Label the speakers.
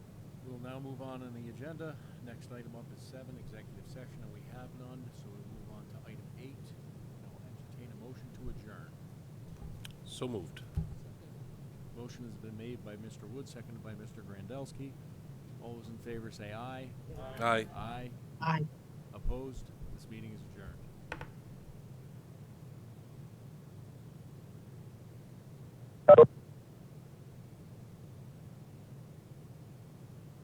Speaker 1: will now move on in the agenda. Next item up is seven, executive session, and we have none, so we move on to item eight. And I'll entertain a motion to adjourn.
Speaker 2: So moved.
Speaker 1: Motion has been made by Mr. Wood, seconded by Mr. Grandelsky. All those in favor say aye.
Speaker 2: Aye.
Speaker 1: Aye.
Speaker 3: Aye.
Speaker 1: Opposed? This meeting is adjourned.